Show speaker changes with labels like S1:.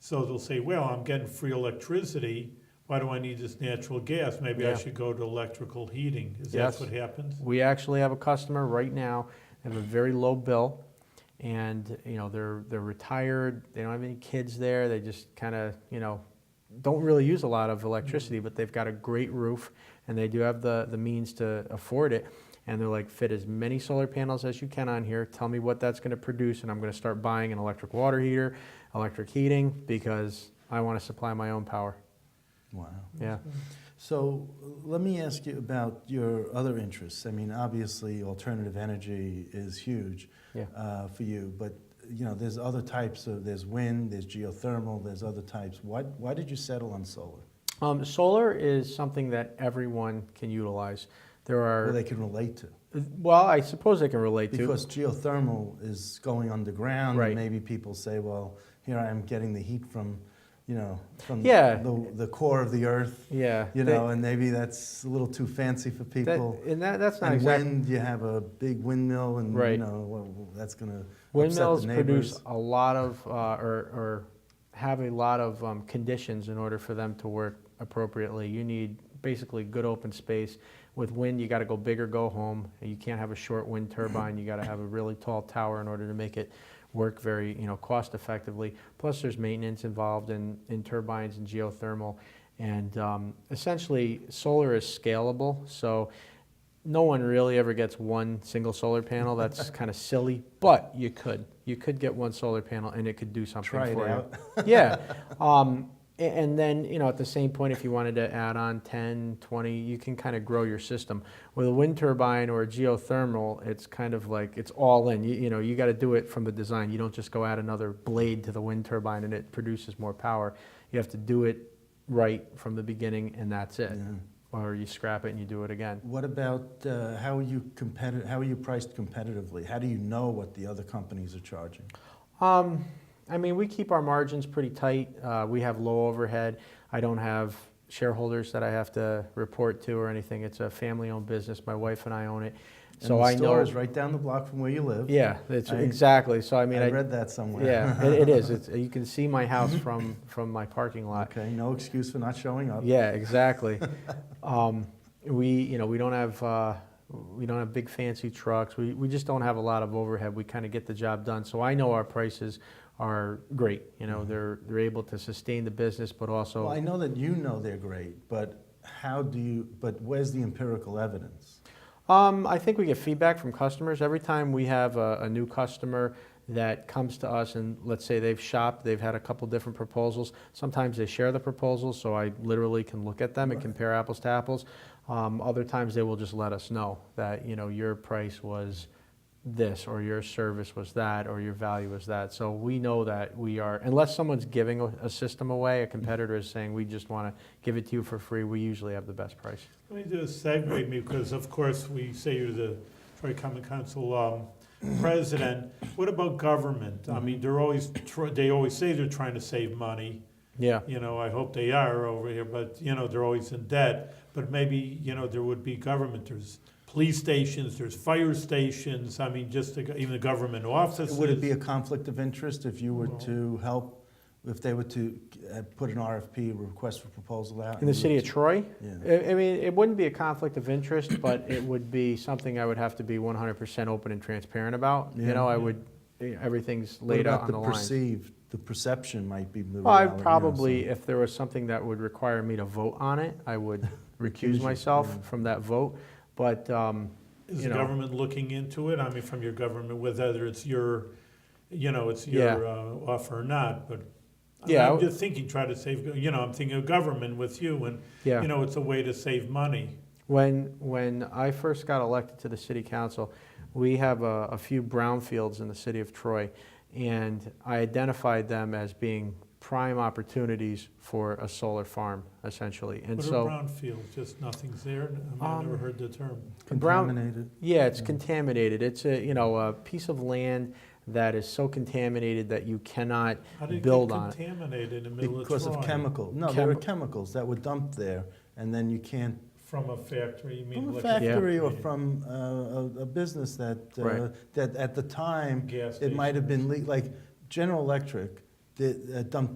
S1: So they'll say, well, I'm getting free electricity, why do I need this natural gas? Maybe I
S2: Yeah.
S1: should go to electrical heating. Is that
S2: Yes.
S1: what happens?
S2: We actually have a customer right now, they have a very low bill, and, you know, they're, they're retired, they don't have any kids there, they just kind of, you know, don't really use a lot of electricity, but they've got a great roof, and they do have the, the means to afford it, and they're like, fit as many solar panels as you can on here, tell me what that's gonna produce, and I'm gonna start buying an electric water heater, electric heating, because I wanna supply my own power,
S3: Wow.
S2: yeah.
S3: So let me ask you about your other interests. I mean, obviously, alternative energy is huge
S2: Yeah.
S3: uh, for you, but you know, there's other types of there's wind, there's geothermal, there's other types. Why why did you settle on solar?
S2: Um, solar is something that everyone can utilize. There are
S3: Where they can relate to.
S2: Well, I suppose I can relate to.
S3: Because geothermal is going underground,
S2: Right.
S3: and maybe people say, well, here I am getting the heat from, you know, from
S2: Yeah.
S3: the, the core of the earth,
S2: yeah,
S3: you
S2: they-
S3: know, and maybe that's a little too fancy for
S2: that,
S3: people.
S2: and that, that's not
S3: and
S2: exactly.
S3: wind, you have a big windmill, and
S2: Right.
S3: you know well, well, that's going to
S2: Windmills
S3: upset the
S2: produce
S3: neighbors.
S2: a lot of, uh, or, or have a lot of um, conditions in order for them to work appropriately. You need basically good open space. With wind, you got to go big or go home. You can't have a short wind turbine. You got to have a really tall tower in order to make it work very, you know, cost effectively. Plus, there's maintenance involved in, in turbines and geothermal. And um, essentially, solar is scalable. So no one really ever gets one single solar panel. That's kind of silly, but you could. You could get one solar panel and it could do something
S3: Try it
S2: for you.
S3: out.
S2: yeah. Um, a- and then, you know, at the same point, if you wanted to add on 10, 20, you can kind of grow your system. With a wind turbine or a geothermal, it's kind of like it's all in. You, you know, you got to do it from the design. You don't just go add another blade to the wind turbine and it produces more power. You have to do it right from the beginning and that's it.
S3: Yeah.
S2: Or you scrap it and you do it again.
S3: What about uh, how are you competi- How are you priced competitively? How do you know what the other companies are charging?
S2: Um, I mean, we keep our margins pretty tight. Uh, we have low overhead. I don't have shareholders that I have to report to or anything. It's a family-owned business. My wife and I own it, so
S3: and the
S2: I
S3: store
S2: know.
S3: is right down the block from where you live.
S2: Yeah, it's
S3: I-
S2: exactly. So I
S3: I,
S2: mean,
S3: read that somewhere.
S2: yeah, it, it is. It's, you can see my house from from my parking lot.
S3: okay, no excuse for not showing up.
S2: Yeah, exactly. um, we, you know, we don't have uh, we don't have big fancy trucks. We, we just don't have a lot of overhead. We kind of get the job done. So I know our prices are great. You know, they're they're able to sustain the business, but also
S3: Mm-hmm. Well, I know that you know they're great, but how do you? But where's the empirical evidence?
S2: Um, I think we get feedback from customers. Every time we have a, a new customer that comes to us and let's say they've shopped, they've had a couple different proposals. Sometimes they share the proposals, so I literally can look at them and compare apples to apples. Um, other times they will just let us know that, you know, your price was this or your service was that or your value was that. So we know that we are, unless someone's giving a, a system away, a competitor is saying, we just want to give it to you for free, we usually have the best price.
S1: Let me just segue me, because of course, we say you're the Troy Common Council um, president. What about government? I mean, they're always, tr- they always say they're trying to save money.
S2: Yeah.
S1: You know, I hope they are over here, but, you know, they're always in debt. But maybe, you know, there would be government, there's police stations, there's fire stations, I mean, just the go- even the government offices.
S3: Would it be a conflict of interest if you were
S1: Well-
S3: to help, if they were to uh, put an RFP, request for proposal out?
S2: In the
S3: and you
S2: city
S3: were
S2: of uh, Troy?
S3: to- Yeah.
S2: I I mean, it wouldn't be a conflict of interest, but it would be something I would have to be 100% open and transparent about. You
S3: Yeah.
S2: know, I would, everything's
S3: What
S2: laid out
S3: about
S2: on the
S3: the
S2: line.
S3: perceived, the perception might be the
S2: Well, I
S3: reality, you know,
S2: probably,
S3: so-
S2: if there was something that would require me to vote on it, I would
S3: Recuse
S2: recuse
S3: you, yeah.
S2: myself from that vote. But, um,
S1: Is
S2: you
S1: the
S2: know.
S1: government looking into it? I mean, from your government, whether it's your, you know, it's your
S2: Yeah.
S1: uh, offer or not, but. I mean,
S2: Yeah, I
S1: I'm
S2: w-
S1: just thinking, try to save, you know, I'm thinking of government with you and,
S2: yeah.
S1: you know, it's a way to save money.
S2: When, when I first got elected to the city council, we have a, a few brownfields in the city of Troy, and I identified them as being prime opportunities for a solar farm, essentially. And
S1: What a
S2: so,
S1: brownfield, just nothing's there. I mean, I
S2: Um,
S1: never heard the term.
S2: Brown-
S3: Contaminated.
S2: yeah, it's
S3: Yeah.
S2: contaminated. It's a, you know, a piece of land that is so contaminated that you cannot
S1: How did it get
S2: build on it.
S1: contaminated in the middle of Troy?
S3: Because of chemical, no, there were
S2: Chemi-
S3: chemicals that were dumped there, and then you can't,
S1: From a factory, you mean?
S3: from a
S1: electric-
S3: factory or
S1: Yeah.
S3: from uh, a, a business that, uh,
S2: Right.
S3: that at the time,
S1: Gas
S3: it
S1: station.
S3: might have been, le- like, General Electric did, uh, dumped